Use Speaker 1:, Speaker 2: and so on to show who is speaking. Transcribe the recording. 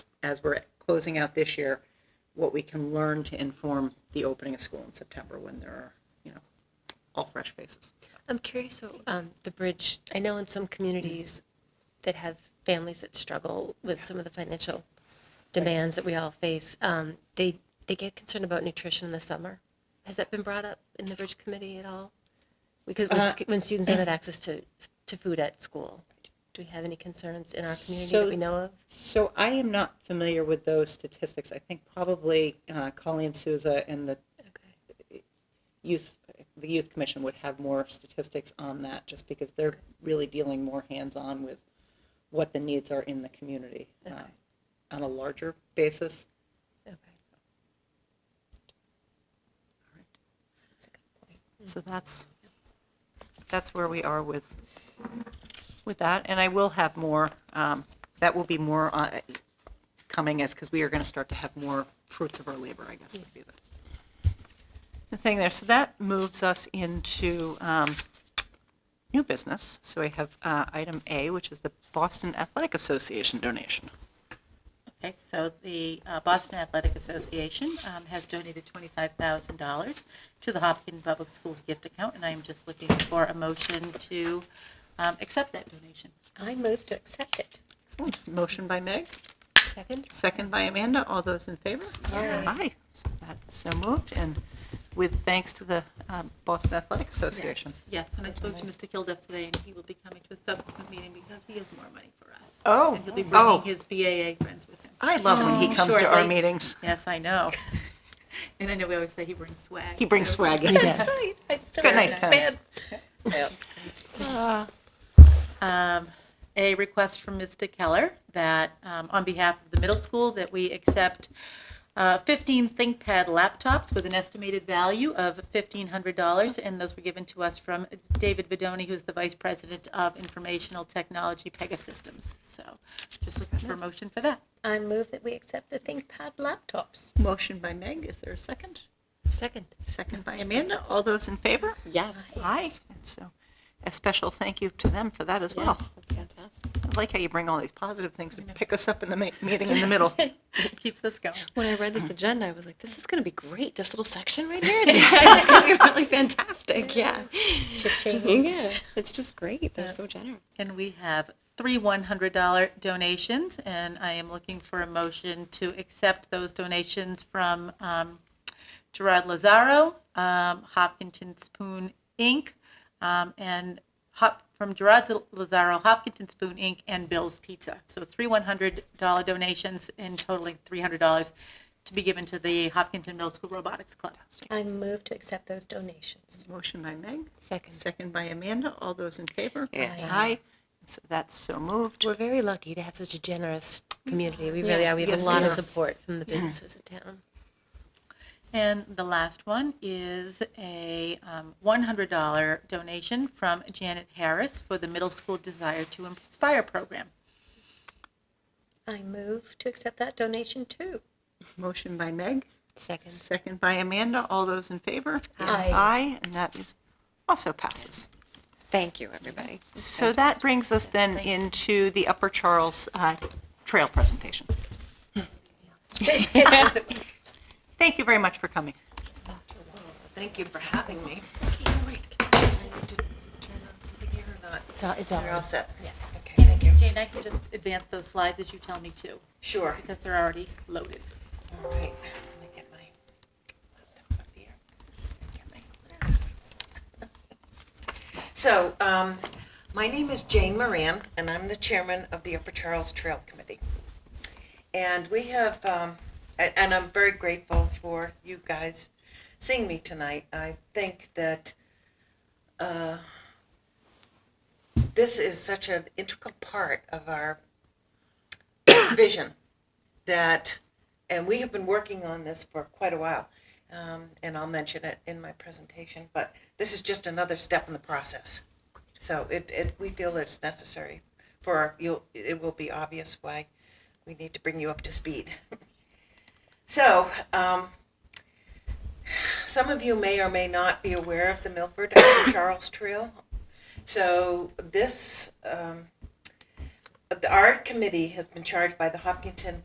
Speaker 1: as we're closing out this year, what we can learn to inform the opening of school in September when there are, you know, all fresh faces.
Speaker 2: I'm curious what um, the bridge. I know in some communities that have families that struggle with some of the financial demands that we all face, um, they they get concerned about nutrition in the summer. Has that been brought up in the bridge committee at all? Because when, sc- when students don't have access to to food at school, do we have any concerns in our community
Speaker 1: So-
Speaker 2: that we know of?
Speaker 1: So I am not familiar with those statistics. I think probably uh, Colleen Souza and the
Speaker 2: Okay.
Speaker 1: youth, the youth commission would have more statistics on that, just because they're really dealing more hands-on with what the needs are in the community uh,
Speaker 2: Okay.
Speaker 1: on a larger basis.
Speaker 2: Okay.
Speaker 1: So that's, that's where we are with, with that, and I will have more, um, that will be more uh, coming as, because we are going to start to have more fruits of our labor, I guess, would be the, the thing there. So that moves us into um, new business. So we have uh, item A, which is the Boston Athletic Association donation.
Speaker 3: Okay, so the uh, Boston Athletic Association um, has donated $25,000 to the Hopkins Public Schools gift account, and I am just looking for a motion to um, accept that donation.
Speaker 4: I move to accept it.
Speaker 1: Excellent. Motion by Meg,
Speaker 2: Second.
Speaker 1: second by Amanda. All those in favor? Aye. So that's so moved, and with thanks to the um, Boston Athletic Association.
Speaker 3: Yes, and I spoke to Mr. Kilduff today, and he will be coming to a subsequent meeting because he has more money for us.
Speaker 1: Oh,
Speaker 3: And he'll be
Speaker 1: oh.
Speaker 3: bringing his BAA friends with him.
Speaker 1: I love when he comes to our
Speaker 3: Shortly.
Speaker 1: meetings.
Speaker 3: Yes, I know. And I know we always say he brings swag.
Speaker 1: He brings
Speaker 3: too.
Speaker 1: swag.
Speaker 4: right. I still
Speaker 1: Got
Speaker 4: have
Speaker 1: nice
Speaker 4: that
Speaker 1: sense.
Speaker 4: bad
Speaker 3: um, a request from Mr. Keller that, um, on behalf of the middle school, that we accept uh, 15 ThinkPad laptops with an estimated value of $1,500, and those were given to us from David Bedoni, who's the Vice President of Informational Technology Pegasystems. So just looking for a motion for that.
Speaker 4: I move that we accept the ThinkPad laptops.
Speaker 1: Motion by Meg, is there a second?
Speaker 2: Second.
Speaker 1: Second by Amanda, all those in favor?
Speaker 5: Yes.
Speaker 1: Aye. And so a special thank you to them for that as well.
Speaker 5: Yes, that's fantastic.
Speaker 1: I like how you bring all these positive things and pick us up in the ma- meeting in the middle.
Speaker 3: Keeps us going.
Speaker 5: When I read this agenda, I was like, this is going to be great. This little section right here, this is going to be really fantastic. Yeah.
Speaker 4: Cha-ching.
Speaker 5: Yeah. It's just great. They're so generous.
Speaker 3: And we have three $100 donations, and I am looking for a motion to accept those donations from um, Gerard Lazaro, um, Hopkinton Spoon, Inc., um, and Hop, from Gerard Z- Lazaro, Hopkinton Spoon, Inc., and Bill's Pizza. So three $100 donations and totaling $300 to be given to the Hopkinton Middle School Robotics Club.
Speaker 4: I move to accept those donations.
Speaker 1: Motion by Meg,
Speaker 2: Second.
Speaker 1: second by Amanda, all those in favor?
Speaker 5: Yes.
Speaker 1: Aye. And So that's so moved.
Speaker 2: We're very lucky to have such a generous community. We really
Speaker 5: Yeah.
Speaker 2: are. We have
Speaker 1: Yes,
Speaker 2: a
Speaker 1: we
Speaker 2: lot
Speaker 1: are.
Speaker 2: of support from the businesses in town.
Speaker 3: And the last one is a um, $100 donation from Janet Harris for the Middle School Desire to Inspire program.
Speaker 4: I move to accept that donation too.
Speaker 1: Motion by Meg,
Speaker 2: Second.
Speaker 1: second by Amanda, all those in favor?
Speaker 4: Aye.
Speaker 1: Aye, and that is, also passes.
Speaker 5: Thank you, everybody.
Speaker 1: So that brings us then into the Upper Charles uh, Trail presentation. Thank you very much for coming.
Speaker 6: Thank you for having me.
Speaker 2: It's all, it's all.
Speaker 6: You're all set? Yeah. Okay, thank you.
Speaker 3: Jane, I can just advance those slides as you tell me to,
Speaker 6: Sure.
Speaker 3: because they're already loaded.
Speaker 6: All right, let me get my laptop up here. Get my- So, um, my name is Jane Moran, and I'm the chairman of the Upper Charles Trail Committee. And we have, um, a- and I'm very grateful for you guys seeing me tonight. I think that, uh, this is such an integral part of our vision that and we have been working on this for quite a while, um, and I'll mention it in my presentation, but this is just another step in the process. So it, it, we feel that it's necessary for, our- you'll, it will be obvious why we need to bring you up to speed. So, um, some of you may or may not be aware of the Milford Upper Charles Trail. So this, um, our committee has been charged by the Hopkinton